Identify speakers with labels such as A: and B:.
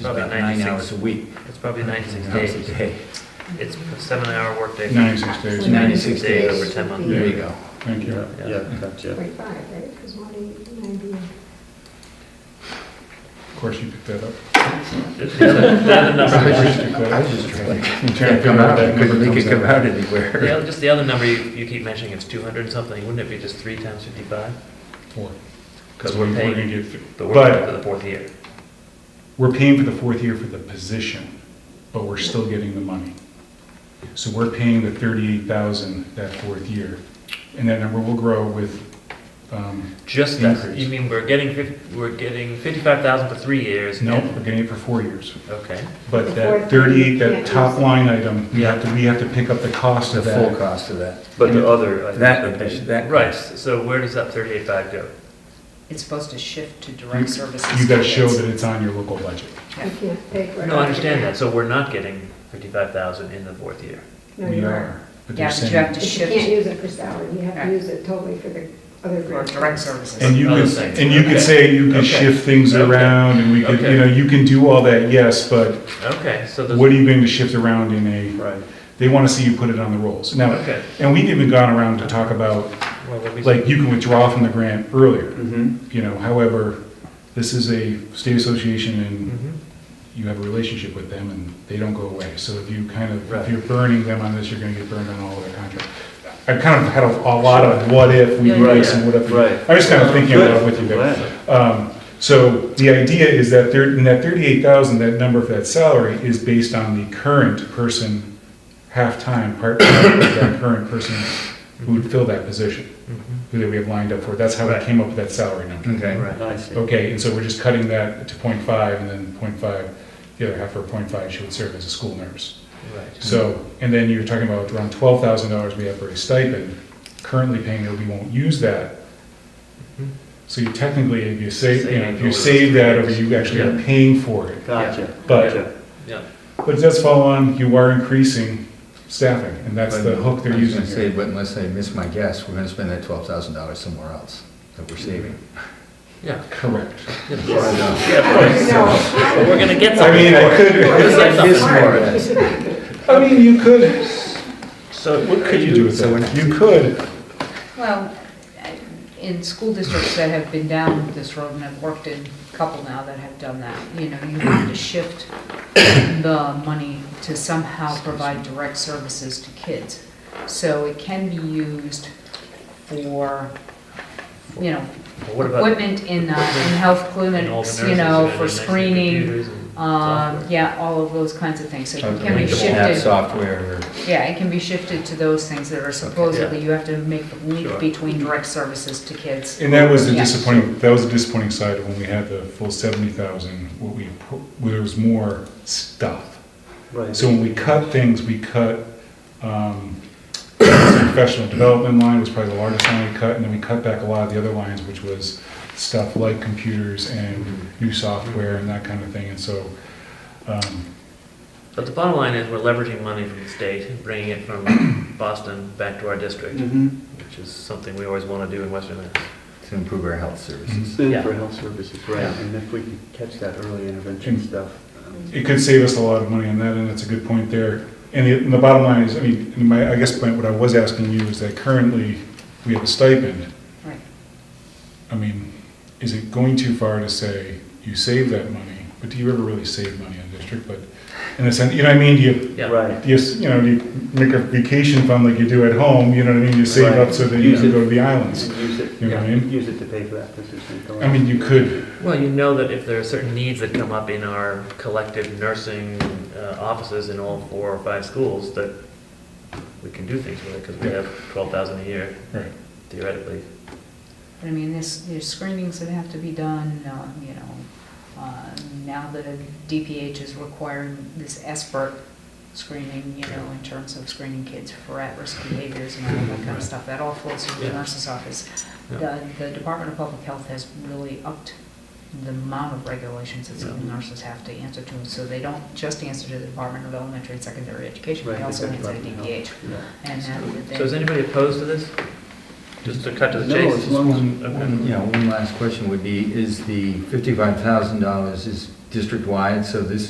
A: probably
B: about nine
A: 96
B: hours a week.
A: It's probably 96
B: Hours a
A: days.
B: day.
A: It's a seven-hour workday.
C: 96 days.
B: 96 days.
A: Over 10 months.
B: There you go.
C: Thank you.
D: Yeah, gotcha.
E: Forty-five, right? Because one eighty, ninety.
C: Of course, you picked that up.
A: It's- it's a- the other
B: Probably
A: number-
B: just- I was just trying to
C: I'm trying to
B: can't
C: figure
B: come
C: out
B: out,
C: that
B: I
C: number
B: couldn't make
C: comes
B: it come
C: out.
B: out
A: the
B: anywhere.
A: other- Just the other number you you keep mentioning, it's 200 and something, wouldn't it be just three times 55?
C: Four.
A: Because
C: So
A: we're
C: gonna
A: paying
C: get fi-
A: the
C: But-
A: work for the fourth year.
C: We're paying for the fourth year for the position, but we're still getting the money. So we're paying the thirty-eight thousand that fourth year, and that number will grow with, um,
A: Just that,
C: Increase.
A: you mean we're getting, fif- we're getting 55,000 for three years?
C: no,
A: and-
C: we're getting it for four years.
A: Okay.
C: But
E: The
C: that
E: fourth
C: thirty-eight,
E: year,
C: that
E: yeah.
C: top line item, we have to, we have to pick up the cost
B: The
C: of
B: full
C: that.
B: cost of that.
D: But the other. I think,
B: That, that.
A: Right, so where does that 38.5 go?
F: It's supposed to shift to direct services.
C: You gotta show
F: kids.
C: that it's on your local budget.
E: You can't pay for it.
A: No, I understand that, so we're not getting 55,0and in the fourth year.
E: No,
C: We
E: you
C: are, but they're
F: Yeah, but you have
C: saying,
F: to
E: But You can't
F: shift
E: use it for salary. You have to
F: Right.
E: use it totally for the other
F: for
E: grant.
F: direct
C: and
F: services.
C: you
A: Other
C: could,
A: things.
C: and you
A: Okay.
C: could say, you could
A: Okay.
C: shift things
A: Okay.
C: around, and we could,
A: Okay.
C: you know, you can do all that, yes, but
A: Okay, so there's.
C: what are you going to shift around in a,
D: Right.
C: they want to see you put it on the rolls. Now,
A: Okay.
C: and we've even gone around to talk about,
A: Well, let me-
C: like, you can withdraw from the grant earlier,
D: Mm-hmm.
C: you know, however, this is a state association and
A: Mhm.
C: you have a relationship with them and they don't go away. So if you kind of, if
A: Right.
C: you're burning them on this, you're going to get burned on all of their contracts. I've kind of had a a lot of what if we
A: Yeah,
C: do
A: yeah,
C: this
D: yeah.
C: and what if. we-
D: Right.
C: I'm just kind of thinking about it with you guys.
D: Glad.
C: Um, So the idea is that there, in that thirty-eight thousand, that number for that salary is based on the current person, half-time, part-time, of that current person who would fill that position,
A: Mhm.
C: who that we have lined up for. That's how we
A: Right.
C: came up with that salary number.
B: Okay.
A: Right.
D: I see.
C: Okay, and so we're just cutting that to 0.5 and then 0.5. the other half for 0.5 she would serve as a school nurse.
A: Right.
C: So, and then you're talking about around twelve thousand dollars we have for a stipend, currently paying that we won't use that.
A: Mhm.
C: So you technically, if you save, you know, if you
A: Saving over
C: save that, or
A: those
C: you actually are
A: years.
C: paying for it.
D: Gotcha.
C: But-
D: Gotcha.
A: Yeah.
C: But it does follow on, you are increasing staffing, and that's the hook they're
B: I was gonna
C: using
B: say,
C: here.
B: but unless I miss my guess, we're gonna spend that twelve thousand dollars somewhere else that we're saving.
A: Yeah.
C: Correct.
E: No.
A: But we're gonna get
C: I
A: something
C: mean, I
A: for it.
C: could,
A: We're gonna get
B: I miss
A: something for
B: more
A: it.
B: of that.
C: I mean, you could,
A: So
C: what could you do with
B: So
C: that? You could,
F: Well, I- in school districts that have been down this road, and I've worked in a couple now that have done that, you know, you have to shift the money to somehow provide direct services to kids. So it can be used for, you know,
A: Well, What about
F: equipment in, uh, in health
A: and all the
F: clinics, you
A: nurses
F: know,
A: and
F: for
A: everything,
F: screening,
A: computers and
F: Um,
A: software?
F: yeah, all of those kinds of things, so it can be
B: Like an app
F: shifted,
B: Software or.
F: yeah, it can be shifted to those things that are supposedly, you have to make the
A: Sure.
F: link between direct services to kids.
C: And that was the
F: Yeah.
C: disappointing, that was the disappointing side of when we had the full seventy thousand, what we, pro- where there was more stuff.
D: Right.
C: So when we cut things, we cut, um, the professional development line was probably the largest line we cut, and then we cut back a lot of the other lines, which was stuff like computers and
F: um,
C: new software and that kind of thing, and so, um,
A: But the bottom line is we're leveraging money from the state, and bringing it from Boston back to our district,
D: Mm-hmm.
A: which is something we always want to do in Western Mass.
B: To improve our health services.
D: Soon
A: Yeah.
D: for health services, right,
A: Yeah.
D: and if we can catch that early intervention
C: Mm.
D: stuff. um,
C: it could save us a lot of money on that, and that's a good point there. And the, and the bottom line is, I mean, my, I guess my- what I was asking you is that currently, we have a stipend,
F: Right.
C: I mean, is it going too far to say you save that money, but do you ever really save money on district? But in a sense, you know what I mean? Do you,
A: Yeah.
D: Right,
C: do you, s- you know, do you make a vacation fund like you do at home? You know what I mean? You save up so that you
D: Use
C: can
D: it.
C: go to the
D: and
C: islands.
D: use it,
C: You know what I mean?
D: use it to pay for that position.
C: I mean, you could,
A: Well, you know that if there are certain needs that come up in our collective nursing uh, offices in all four or five schools, that we can do things with it, because we have twelve thousand a year
C: right?
A: theoretically.
F: But I mean, there's, there's screenings that have to be done, um, you know, uh, now the DPH is requiring this ESPER screening, you know, in terms of screening kids for at-risk behaviors and all that kind of stuff, that all flows through the
A: Yeah.
F: nurse's office.
A: Yeah.
F: The, the Department of Public Health has really upped the amount of regulations that some
A: Yeah.
F: nurses have to answer to, so they don't just answer to the Department of Elementary and Secondary Education,
D: Right,
F: they also
D: that's
F: answer to
D: Department of
F: DPH.
D: Yeah.
F: And that,
A: So is
F: they,
A: anybody opposed to this? Just to cut to the
D: No,
A: chase?
D: as long as,
B: Mm-hmm. One- one- You know, one last question would be, is the fifty-five thousand dollars, is district-wide, so this